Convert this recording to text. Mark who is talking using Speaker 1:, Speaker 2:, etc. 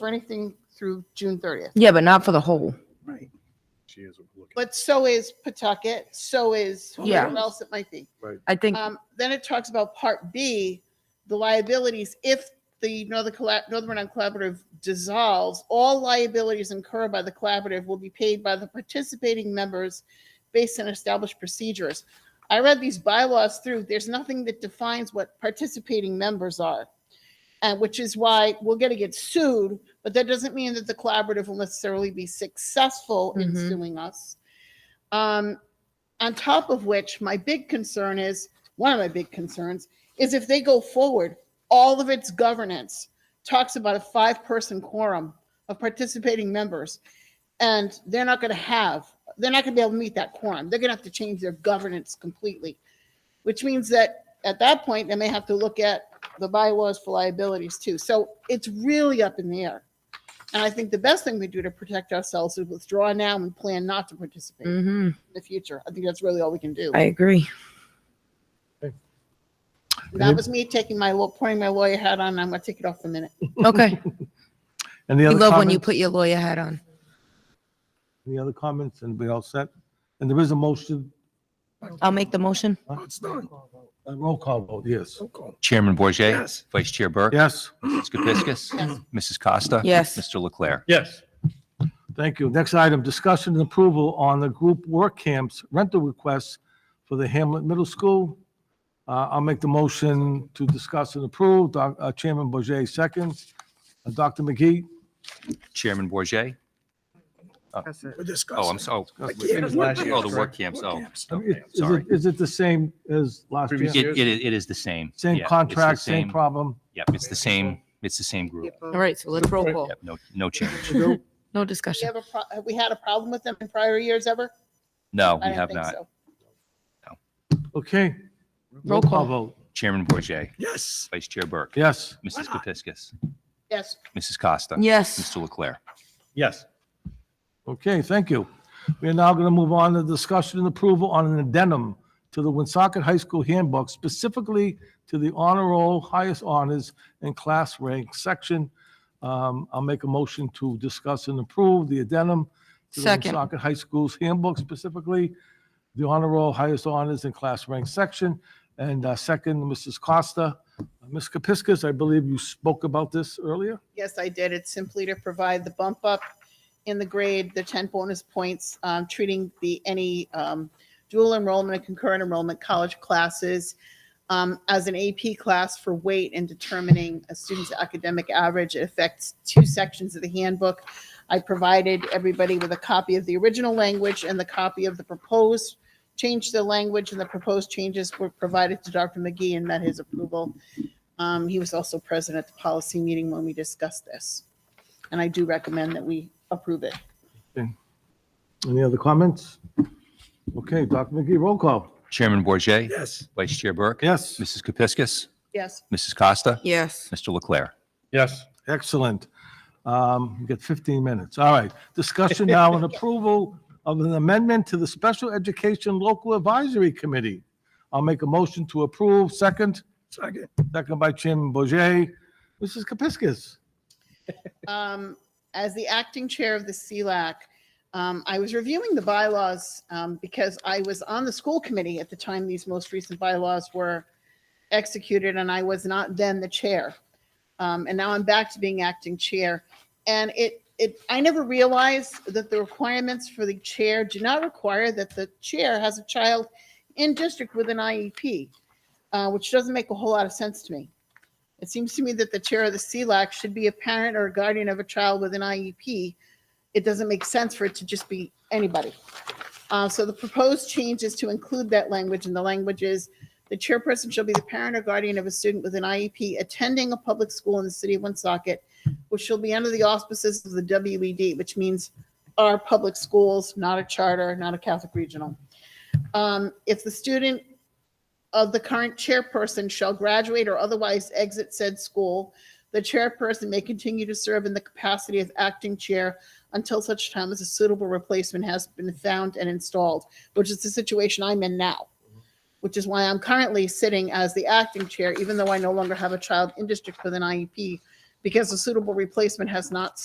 Speaker 1: for anything through June thirtieth.
Speaker 2: Yeah, but not for the whole.
Speaker 3: Right.
Speaker 4: She is looking.
Speaker 1: But so is Pawtucket, so is
Speaker 2: Yeah.
Speaker 1: whoever else it might be.
Speaker 2: I think
Speaker 1: Um, then it talks about part B, the liabilities. If the Northern, Colla- Northern Rhode Island Collaborative dissolves, all liabilities incurred by the collaborative will be paid by the participating members based on established procedures. I read these bylaws through. There's nothing that defines what participating members are. And which is why we're going to get sued, but that doesn't mean that the collaborative will necessarily be successful in
Speaker 2: Mhm.
Speaker 1: suing us. Um, on top of which, my big concern is one of my big concerns is if they go forward, all of its governance talks about a five person quorum of participating members. And they're not going to have, they're not going to be able to meet that quorum. They're going to have to change their governance completely, which means that at that point, they may have to look at the bylaws for liabilities too. So it's really up in the air. And I think the best thing we do to protect ourselves is withdraw now and plan not to participate in
Speaker 2: mhm,
Speaker 1: the future. I think that's really all we can do.
Speaker 2: I agree.
Speaker 1: That was me taking my, law- putting my lawyer hat on. I'm going to take it off in a minute.
Speaker 2: Okay.
Speaker 4: Any
Speaker 2: we
Speaker 4: other
Speaker 2: love when you put
Speaker 4: comments?
Speaker 2: your lawyer hat on.
Speaker 4: Any other comments? And we all set? And there is a motion,
Speaker 2: I'll make the motion.
Speaker 3: No, it's done.
Speaker 4: a roll call vote, yes.
Speaker 3: Don't call.
Speaker 5: Chairman Bourget,
Speaker 3: Yes.
Speaker 5: Vice Chair Burke,
Speaker 4: Yes?
Speaker 5: Mrs. Kepiscus, Mrs. Costa.
Speaker 2: Yes.
Speaker 5: Mr. Leclerc.
Speaker 4: Yes. Thank you. Next item, discussion and approval on the group work camps rental requests for the Hamlet Middle School. Uh, I'll make the motion to discuss and approve. Doc- uh, Chairman Bourget seconds. Uh, Dr. McGee?
Speaker 5: Chairman Bourget.
Speaker 3: We're discussing.
Speaker 5: Oh, I'm so, oh,
Speaker 3: Like,
Speaker 4: we
Speaker 3: yeah,
Speaker 4: finished
Speaker 3: work
Speaker 4: last year,
Speaker 5: oh, the
Speaker 3: camps,
Speaker 5: work
Speaker 3: right?
Speaker 5: camps.
Speaker 3: Work
Speaker 5: Oh,
Speaker 3: camps.
Speaker 5: okay,
Speaker 4: Is
Speaker 5: I'm
Speaker 4: it-
Speaker 5: sorry.
Speaker 4: Is it the same as last
Speaker 5: It,
Speaker 4: year?
Speaker 5: it is, it is the same.
Speaker 4: Same
Speaker 5: Yeah, it's the
Speaker 4: contract, same problem?
Speaker 5: Yep, it's the same, it's the same group.
Speaker 2: All right, so let's roll call.
Speaker 5: Yep, no, no change.
Speaker 2: No
Speaker 1: We
Speaker 2: discussion.
Speaker 1: have a, pro- have we had a problem with them in prior years ever?
Speaker 5: No,
Speaker 1: I
Speaker 5: we
Speaker 1: don't
Speaker 5: have
Speaker 1: think
Speaker 5: not.
Speaker 1: so.
Speaker 4: Okay.
Speaker 2: Roll call.
Speaker 4: vote.
Speaker 5: Chairman Bourget,
Speaker 3: Yes.
Speaker 5: Vice Chair Burke,
Speaker 4: Yes.
Speaker 5: Mrs. Kepiscus,
Speaker 1: Yes,
Speaker 5: Mrs. Costa.
Speaker 2: Yes.
Speaker 5: Mr. Leclerc.
Speaker 4: Yes. Okay, thank you. We are now going to move on to discussion and approval on an addendum to the Woonsocket High School handbook, specifically to the honor roll, highest honors, and class rank section. Um, I'll make a motion to discuss and approve the addendum to the
Speaker 2: Second.
Speaker 4: Woonsocket High School's handbook, specifically the honor roll, highest honors, and class rank section. And uh, second, Mrs. Costa. Ms. Kepiscus, I believe you spoke about this earlier?
Speaker 1: yes, I did. It's simply to provide the bump up in the grade, the 10 bonus points, um, treating the, any um, dual enrollment and concurrent enrollment college classes um, as an AP class for weight and determining a student's academic average. It affects two sections of the handbook. I provided everybody with a copy of the original language and the copy of the proposed change to the language, and the proposed changes were provided to Dr. McGee and met his approval. Um, He was also present at the policy meeting when we discussed this. And I do recommend that we approve it.
Speaker 4: Any other comments? Okay, Dr. McGee, roll call.
Speaker 5: Chairman Bourget,
Speaker 3: Yes.
Speaker 5: Vice Chair Burke.
Speaker 4: Yes.
Speaker 5: Mrs. Kepiscus,
Speaker 1: Yes,
Speaker 5: Mrs. Costa,
Speaker 2: Yes.
Speaker 5: Mr. Leclerc.
Speaker 4: Yes. Excellent. Um, You get 15 minutes. All right. Discussion now and approval of an amendment to the Special Education Local Advisory Committee. I'll make a motion to approve. Second,
Speaker 3: Second.
Speaker 4: second by Chairman Bourget. Mrs. Kepiscus.
Speaker 1: um, as the acting chair of the CLAC, um, I was reviewing the bylaws, um, because I was on the school committee at the time these most recent bylaws were executed, and I was not then the chair. Um, and now I'm back to being acting chair. And it, it, I never realized that the requirements for the chair do not require that the chair has a child in district with an IEP, uh, which doesn't make a whole lot of sense to me. It seems to me that the chair of the CLAC should be a parent or a guardian of a child with an IEP. It doesn't make sense for it to just be anybody. Uh, so the proposed change is to include that language, and the language is, the chairperson shall be the parent or guardian of a student with an IEP attending a public school in the city of Woonsocket, which shall be under the auspices of the WED, which means our public schools, not a charter, not a Catholic regional. Um, if the student of the current chairperson shall graduate or otherwise exit said school, the chairperson may continue to serve in the capacity of acting chair until such time as a suitable replacement has been found and installed, which is the situation I'm in now, which is why I'm currently sitting as the acting chair, even though I no longer have a child in district with an IEP, because a suitable replacement has not